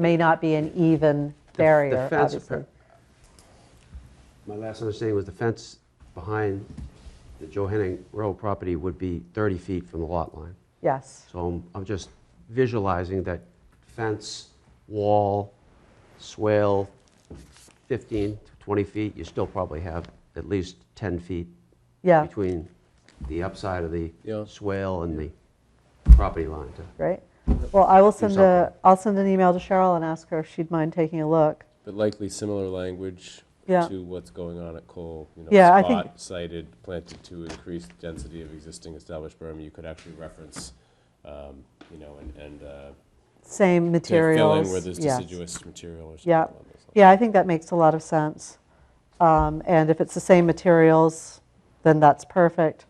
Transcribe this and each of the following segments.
may not be an even The- the barrier, fence obviously. appar- My last understanding was the fence behind the Joe Henning Row property would be 30 feet from the lot line. Yes, So I'm, I'm just visualizing that fence, wall, swale, 15 to 20 feet, you still probably have at least 10 feet yeah, between the upside of the Yeah. swale and the property line. to- right. Well, I will send a, something. I'll send an email to Cheryl and ask her if she'd mind taking a look. But likely similar language Yeah. to what's going on at Cole. You know, Yeah, I think- Spot cited, planted to increase density of existing established berm. You could actually reference, um, you know, and, and uh, Same to fill in materials. where there's yes. deciduous material or something Yeah. along those lines. Yeah, I think that makes a lot of sense. Um, And if it's the same materials, then that's perfect.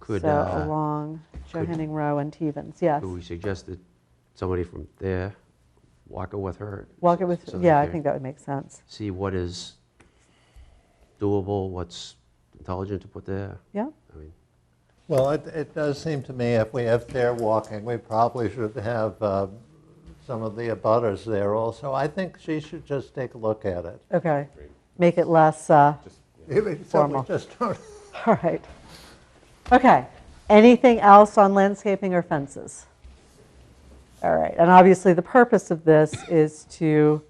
Could, So uh, along could- Johanning Row and Tevens, yes. could we suggest that somebody from there walk it with her? Walk it with, so that yeah, I they're- think that would make sense. see what is doable, what's intelligent to put there. Yeah, I mean, Well, it, it does seem to me if we have fair walking, we probably should have uh, some of the abutters there also. I think she should just take a look at it. okay. Make it less, uh, So Formal. we just don't, all right. Okay, anything else on landscaping or fences? All right, and obviously, the purpose of this is to,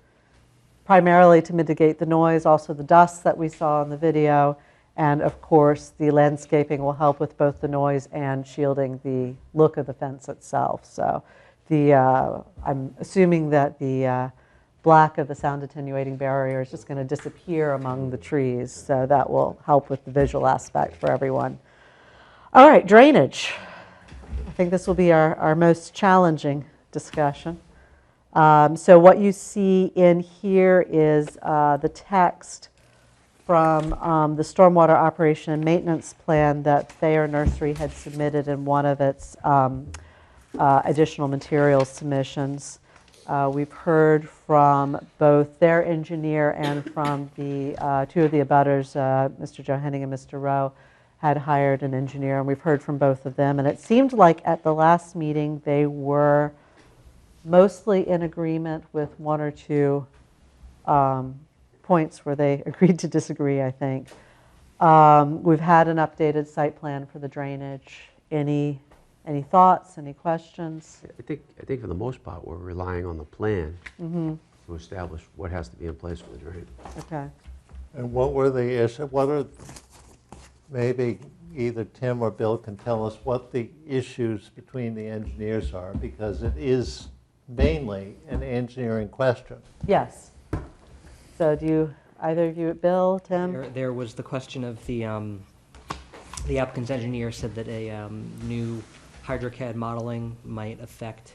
primarily to mitigate the noise, also the dust that we saw in the video, and of course, the landscaping will help with both the noise and shielding the look of the fence itself. So the, uh, I'm assuming that the uh, black of the sound attenuating barrier is just going to disappear among the trees, so that will help with the visual aspect for everyone. All right, drainage. I think this will be our, our most challenging discussion. Um, So what you see in here is uh, the text from um, the Stormwater Operation and Maintenance Plan that Thayer Nursery had submitted in one of its um, uh, additional materials submissions. Uh, We've heard from both their engineer and from the, uh, two of the abutters, uh, Mr. Joe Henning and Mr. Rowe, had hired an engineer, and we've heard from both of them. And it seemed like at the last meeting, they were mostly in agreement with one or two um, points where they agreed to disagree, I think. Um, We've had an updated site plan for the drainage. Any, any thoughts, any questions? I think, I think for the most part, we're relying on the plan to establish what has to be in place for the drain. Okay, and what were the issue, what are, maybe either Tim or Bill can tell us what the issues between the engineers are, because it is mainly an engineering question. yes. So do you, either of you, Bill, Tim? There, there was the question of the, um, the applicant's engineer said that a, um, new hydrocad modeling might affect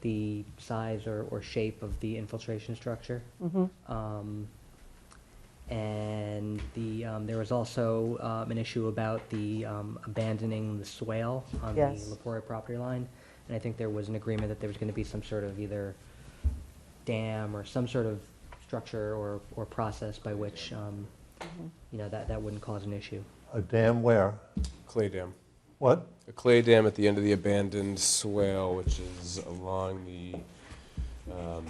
the size or, or shape of the infiltration structure. Um, and the, um, there was also, um, an issue about the, um, abandoning the swale on the Yes. Lepori property line. And I think there was an agreement that there was gonna be some sort of either dam or some sort of structure or, or process by which, um, you know, that, that wouldn't cause an issue. A damn where? Clay dam. What? A clay dam at the end of the abandoned swale, which is along the um,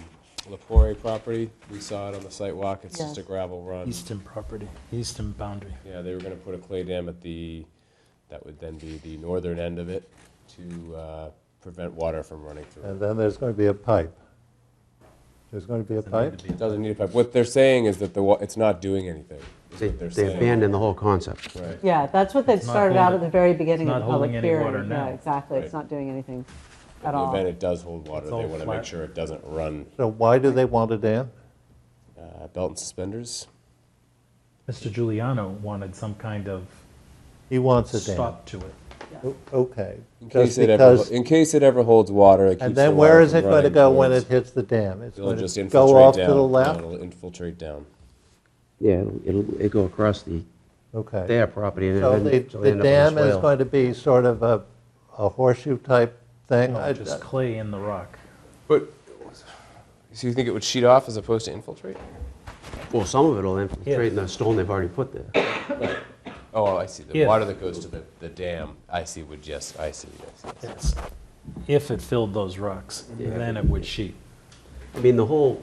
Lepori property. We saw it on the site walk. It's just a Yes. gravel run. Eastern property, eastern boundary. Yeah, they were gonna put a clay dam at the, that would then be the northern end of it to uh, prevent water from running through. And it. then there's going to be a pipe. There's going to be a pipe? It doesn't need a pipe. What they're saying is that the, wa- it's not doing anything, is They what they're saying. they abandon the whole concept. Right. Yeah, that's what they've It's not started out at holding- the very beginning it's of not the public holding any hearing. water now. Yeah, exactly, it's Right. not doing anything In at the all. event it does hold water, It's they all wanna make flat. sure it doesn't run. So why do they want a dam? Uh, Belt and suspenders? Mr. Giuliano wanted some kind of He wants a dam. stop to it. O- Okay. In Just case it ever, because- ho- in case it ever holds water, it keeps the water And then where is from it going to running go when towards- it hits the dam? It's It'll going just to infiltrate down. go off to the No, left? It'll infiltrate down. Yeah, it'll- it'll, it'll go across the, Okay. their property and So then the it'll the end up in dam the is swale. going to be sort of a a horseshoe-type thing? I- No, just clay in the rock. But, so you think it would sheet off as opposed to infiltrate? Well, some of it'll infiltrate in the stone they've already put there. Oh, I see. The If- water that goes to the, the dam, I see, would just, I see, yes. yes. If it filled those rocks, then it would sheet. I mean, the whole